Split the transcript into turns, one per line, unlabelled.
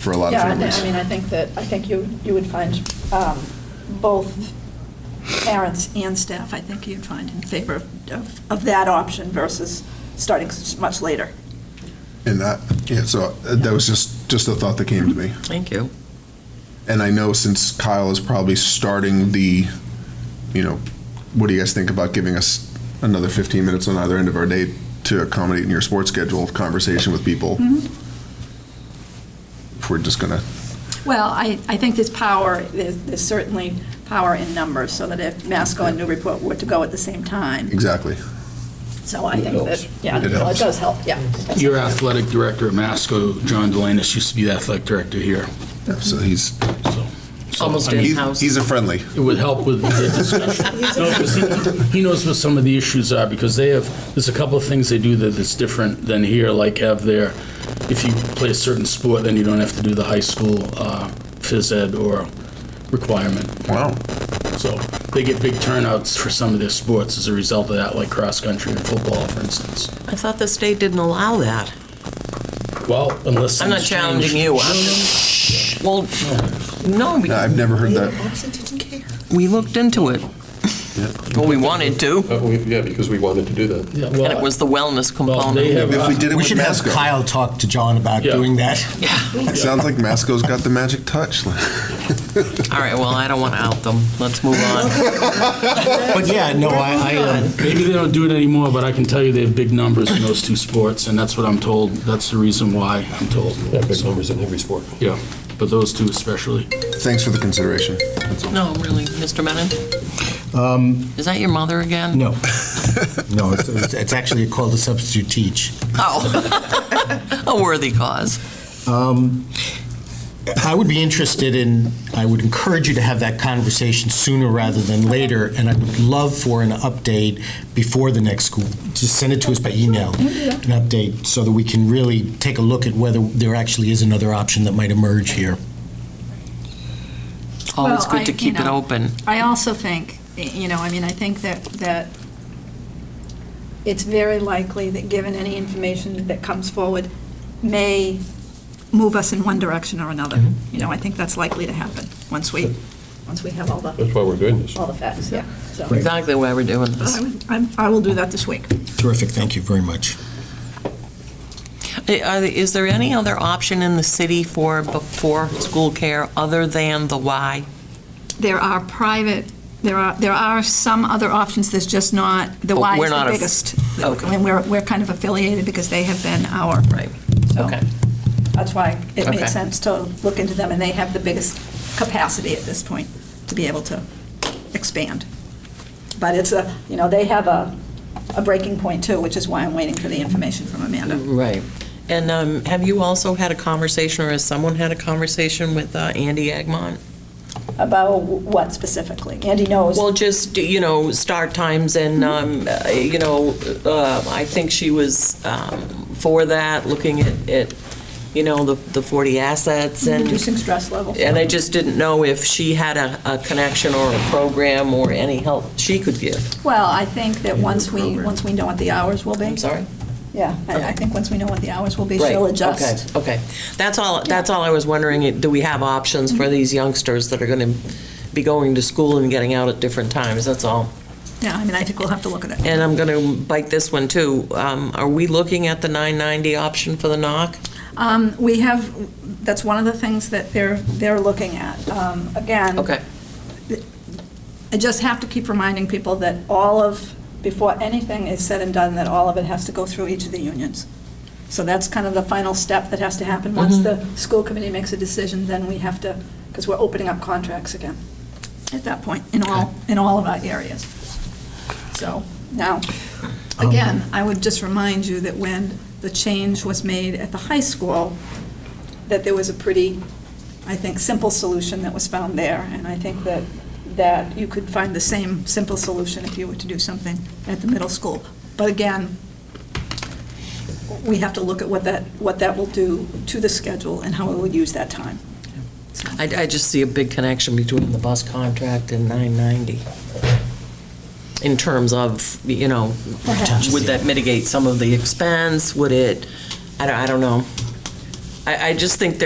for a lot of
Yeah, I thi-
families.
I mean, I think that, I think you, you would find um, both parents and staff, I think you'd find in favor of- of, of that option versus starting s- much later.
And that, yeah, so uh, that was just, just a thought that came to me.
Thank you.
And I know since Kyle is probably starting the, you know, what do you guys think about giving us another 15 minutes on either end of our day to accommodate in your sports schedule conversation with people?
Mm-hmm.
If we're just gonna,
Well, I, I think there's power, there's there's certainly power in numbers, so that if Masco and Newburyport were to go at the same time,
exactly.
so I think that, yeah,
It
well, it
helps.
does help, yeah.
Your athletic director at Masco, John Delanus, used to be the athletic director here,
Mm-hmm.
Yeah, So he's,
so. so,
Almost
I mean,
did.
he's
In-house.
he's a friendly.
It would help with the discussion. No, 'cause he- He knows what some of the issues are, because they have, there's a couple of things they do that that's different than here, like have their, if you play a certain sport, then you don't have to do the high school uh, phys ed or requirement.
Wow.
So they get big turnouts for some of their sports as a result of that, like cross-country and football, for instance.
I thought the state didn't allow that.
Well, unless.
I'm not
things change.
challenging you. I'm- Well, no, we-
No, I've never heard that.
we looked into it. Well, we wanted to,
Uh, we- Yeah, because we wanted to do that.
Yeah,
and it
well,
was the wellness
well, they
component.
have.
If we did it
We
with
should have
Masco.
Kyle talk to John about
Yeah.
doing that.
It sounds like Masco's got the magic touch.
All right, well, I don't want to out them. Let's move on.
But yeah, no, I, I, um,
Maybe they don't do it anymore, but I can tell you they have big numbers in those two sports, and that's what I'm told. That's the reason why I'm told.
Yeah, big
So,
numbers in every sport.
Yeah, but those two especially.
Thanks for the consideration. That's all.
No, really, Mr. Menon? Is that your mother again?
um, no. No, it's- it's it's actually called a substitute teach.
Oh, a worthy cause.
Um, I would be interested in, I would encourage you to have that conversation sooner rather than later, and I would love for an update before the next school. Just send it to us by email, an update, so that we can really take a look at whether there actually is another option that might emerge here.
Always
Well, I-
good to
you
keep it
know,
open.
I also think, you know, I mean, I think that, that it's very likely that, given any information that comes forward, may move us in one direction or another. You know, I think that's likely to happen, once we, once we have all the,
That's why we're doing this.
all the facts, yeah. So
Exactly why we're doing this.
I would- I'm- I will do that this week.
Terrific, thank you very much.
Uh-huh.
I- are the- Is there any other option in the city for before-school care other than the Y?
There are private, there are, there are some other options, there's just not, the
Oh,
Y
we're
is the
not a-
biggest.
okay.
I mean, we're, we're kind of affiliated because they have been our.
Right.
so
Okay.
That's why it
Okay.
makes sense to look into them, and they have the biggest capacity at this point to be able to expand. But it's a, you know, they have a, a breaking point too, which is why I'm waiting for the information from Amanda.
Right. And um, have you also had a conversation, or has someone had a conversation with uh, Andy Agmont?
About what specifically? Andy knows.
Well, just, you know, start times and, um, uh, you know, uh, I think she was um, for that, looking at, at, you know, the the 40 assets and...
Reducing stress levels.
And I just didn't know if she had a, a connection or a program or any help she could give.
Well, I think that once we, once we know what the hours will be.
I'm sorry?
Yeah, I, I think once we know what the hours will be,
Right,
she'll adjust.
Okay, okay. That's all, that's all I was wondering, do we have options for these youngsters that are going to be going to school and getting out at different times, that's all.
Yeah, I mean, I think we'll have to look at it.
And I'm going to bite this one, too. Um, Are we looking at the 990 option for the knock?
Um, we have, that's one of the things that they're, they're looking at. Um, again.
Okay,
I just have to keep reminding people that all of, before anything is said and done, that all of it has to go through each of the unions. So that's kind of the final step that has to happen. Once
Mm-hmm.
the school committee makes a decision, then we have to, because we're opening up contracts again at that point, in all, in all of our areas. So, now,
Um,
again, I would just remind you that when the change was made at the high school, that there was a pretty, I think, simple solution that was found there, and I think that, that you could find the same simple solution if you were to do something at the middle school. But again, we have to look at what that, what that will do to the schedule and how we would use that time.
I, I just see a big connection between the bus contract and 990 in terms of, you know,
Perhaps.
would that mitigate some of the expense? Would it, I don't, I don't know. I, I just think